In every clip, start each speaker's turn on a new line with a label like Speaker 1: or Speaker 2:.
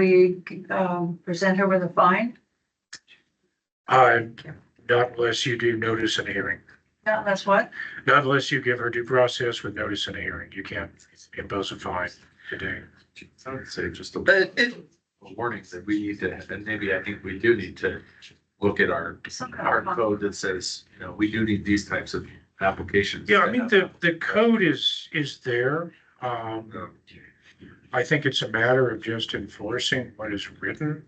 Speaker 1: we, um, present her with a fine,
Speaker 2: Uh, not unless you do notice and hearing,
Speaker 1: not unless what?
Speaker 2: not unless you give her due process with notice and hearing, you can't impose a fine today.
Speaker 3: I would say just a
Speaker 4: But it,
Speaker 3: a warning that we need to, and maybe I think we do need to look at our,
Speaker 1: Some kind
Speaker 3: our
Speaker 1: of fine.
Speaker 3: code that says, you know, we do need these types of applications.
Speaker 2: Yeah, I mean, the, the code is, is there. Um, I think it's a matter of just enforcing what is written.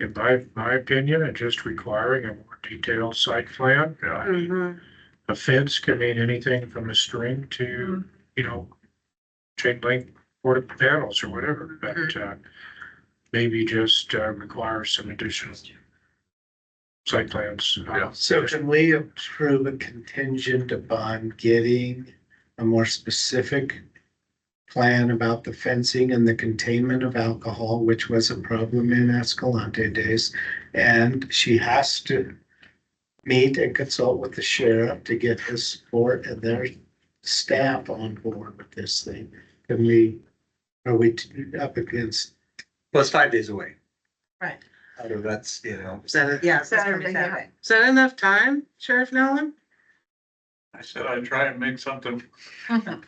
Speaker 2: In my, my opinion, and just requiring a more detailed site plan. Uh,
Speaker 1: Mm.
Speaker 5: Mm-hmm.
Speaker 2: A fence can mean anything from a string to, you know, chain link portable panels or whatever, but, uh, maybe just uh, require some additional site plans. uh,
Speaker 3: Yeah.
Speaker 6: So can we approve a contingent upon getting a more specific plan about the fencing and the containment of alcohol, which was a problem in Escalante days? And she has to meet and consult with the sheriff to get his support and their staff on board with this thing. Can we, are we up against?
Speaker 5: Well, it's five days away.
Speaker 4: Right.
Speaker 5: So that's, you know,
Speaker 4: is that, yeah, is
Speaker 1: Saturday night.
Speaker 4: that enough time, Sheriff Nolan?
Speaker 7: I said I'd try and make something,
Speaker 8: I'm,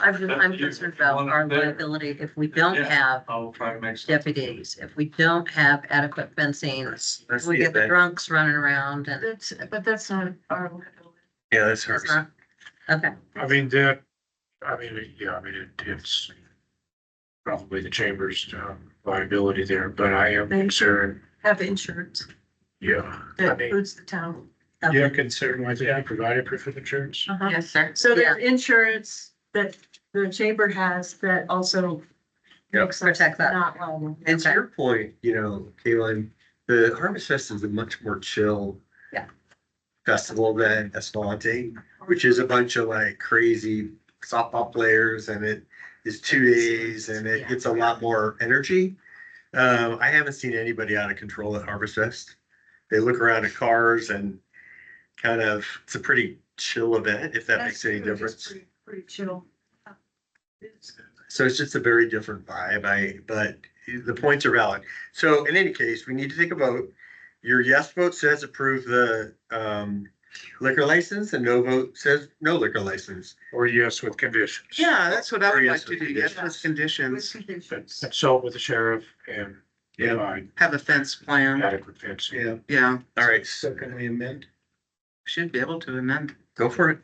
Speaker 8: I'm concerned about our liability if we don't have
Speaker 7: I'll try and make. something.
Speaker 8: deputies, if we don't have adequate fencing.
Speaker 5: that's, that's
Speaker 8: We
Speaker 5: the
Speaker 8: get the
Speaker 5: event.
Speaker 8: drunks running around and
Speaker 1: That's, but that's not our liability.
Speaker 5: Yeah, that's hers.
Speaker 8: it's not, okay.
Speaker 2: I mean, that, I mean, yeah, I mean, it- it's probably the chamber's um, liability there, but I am
Speaker 1: Thank you.
Speaker 2: concerned,
Speaker 1: Have insurance
Speaker 2: yeah. I
Speaker 1: that
Speaker 2: mean,
Speaker 1: includes the town.
Speaker 2: yeah, concerned with that, provided proof of insurance.
Speaker 1: Uh-huh.
Speaker 4: Yes, sir.
Speaker 1: So there's insurance that the chamber has that also
Speaker 5: Yeah.
Speaker 1: makes us
Speaker 8: Protect that.
Speaker 1: not liable.
Speaker 5: And to
Speaker 8: Okay.
Speaker 5: your point, you know, Kaylin, the Harvest Fest is a much more chill.
Speaker 8: Yeah.
Speaker 5: Festival than Escalante, which is a bunch of like crazy softball players and it is two days and it
Speaker 8: Yeah.
Speaker 5: gets a lot more energy. Um, I haven't seen anybody out of control at Harvest Fest. They look around at cars and kind of, it's a pretty chill event, if that makes any
Speaker 1: That's true. It's
Speaker 5: difference.
Speaker 1: pretty- Pretty chill.
Speaker 5: So it's just a very different vibe, I, but the points are valid. So in any case, we need to take a vote. Your yes vote says approve the um liquor license and no vote says no liquor license.
Speaker 2: Or yes, with conditions.
Speaker 4: Yeah, that's what I
Speaker 5: Or
Speaker 4: would
Speaker 5: yes
Speaker 4: like to do,
Speaker 5: with
Speaker 4: yes,
Speaker 5: conditions.
Speaker 4: with
Speaker 1: With
Speaker 4: conditions,
Speaker 1: conditions.
Speaker 2: Consult with the sheriff and
Speaker 5: Yeah.
Speaker 2: provide
Speaker 4: have a fence plan,
Speaker 2: adequate fencing.
Speaker 4: yeah,
Speaker 5: All right,
Speaker 6: So can we amend?
Speaker 4: should be able to amend.
Speaker 5: go for it.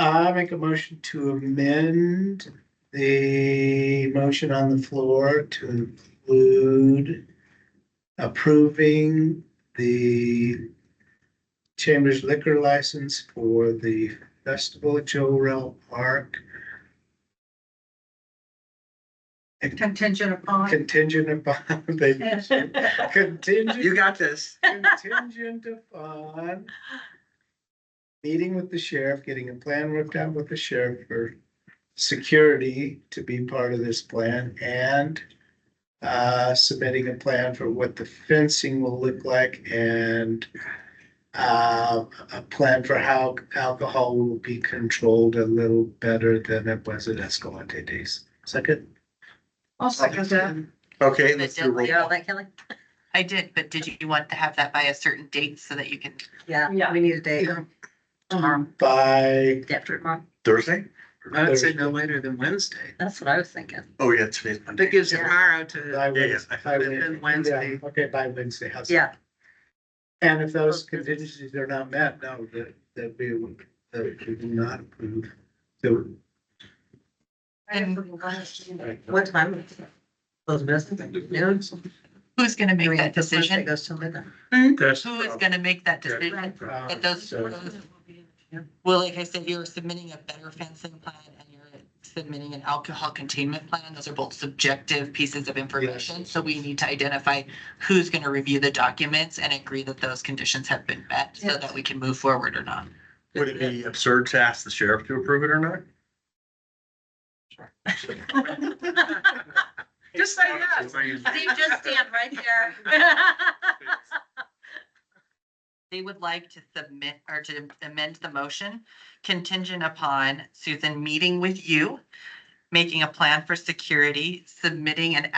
Speaker 6: I make a motion to amend the motion on the floor to include approving the Chambers liquor license for the festival at Joe Rel Park
Speaker 1: Contingent upon.
Speaker 6: contingent upon the
Speaker 5: You
Speaker 6: contingent,
Speaker 5: got this.
Speaker 6: contingent upon meeting with the sheriff, getting a plan worked out with the sheriff for security to be part of this plan and uh, submitting a plan for what the fencing will look like and uh, a plan for how alcohol will be controlled a little better than it was at Escalante days. Second?
Speaker 1: I'll second that.
Speaker 5: Okay, let's do a roll
Speaker 8: You all
Speaker 5: call.
Speaker 8: like Kelly?
Speaker 9: I did, but did you want to have that by a certain date so that you can?
Speaker 8: Yeah,
Speaker 1: Yeah.
Speaker 8: we need a date.
Speaker 4: Um,
Speaker 6: By
Speaker 8: After tomorrow.
Speaker 5: Thursday?
Speaker 4: I would say no later than Wednesday,
Speaker 8: That's what I was thinking.
Speaker 5: Oh, yeah, today's
Speaker 4: that
Speaker 5: Monday.
Speaker 4: gives tomorrow to,
Speaker 6: By
Speaker 5: Yeah, yeah,
Speaker 6: Wednesday.
Speaker 5: I
Speaker 6: by
Speaker 4: that-
Speaker 5: thought
Speaker 6: Wednesday.
Speaker 4: Wednesday.
Speaker 6: Yeah, Okay, by Wednesday. how's that?
Speaker 8: Yeah,
Speaker 6: And if those contingencies are not met, no, that, that we, would- that we do not approve. So,
Speaker 8: what time? Those businesses, noon?
Speaker 9: Who's gonna
Speaker 8: I
Speaker 9: make
Speaker 8: mean,
Speaker 9: that
Speaker 8: the first day
Speaker 9: decision?
Speaker 8: Goes to midnight.
Speaker 2: That's.
Speaker 9: Who is gonna make that
Speaker 2: Yeah.
Speaker 9: decision?
Speaker 6: uh,
Speaker 9: That those, well, like I said, you're submitting a better fencing plan and you're submitting an alcohol containment plan. Those are both subjective pieces of information. So we need to identify who's gonna review the documents and agree that those conditions have been met so
Speaker 8: Yes.
Speaker 9: that we can move forward or not.
Speaker 5: Would it be absurd to ask the sheriff to approve it or not?
Speaker 4: just say yes.
Speaker 8: Steve, just stand right there.
Speaker 9: They would like to submit or to amend the motion contingent upon Susan meeting with you, making a plan for security, submitting an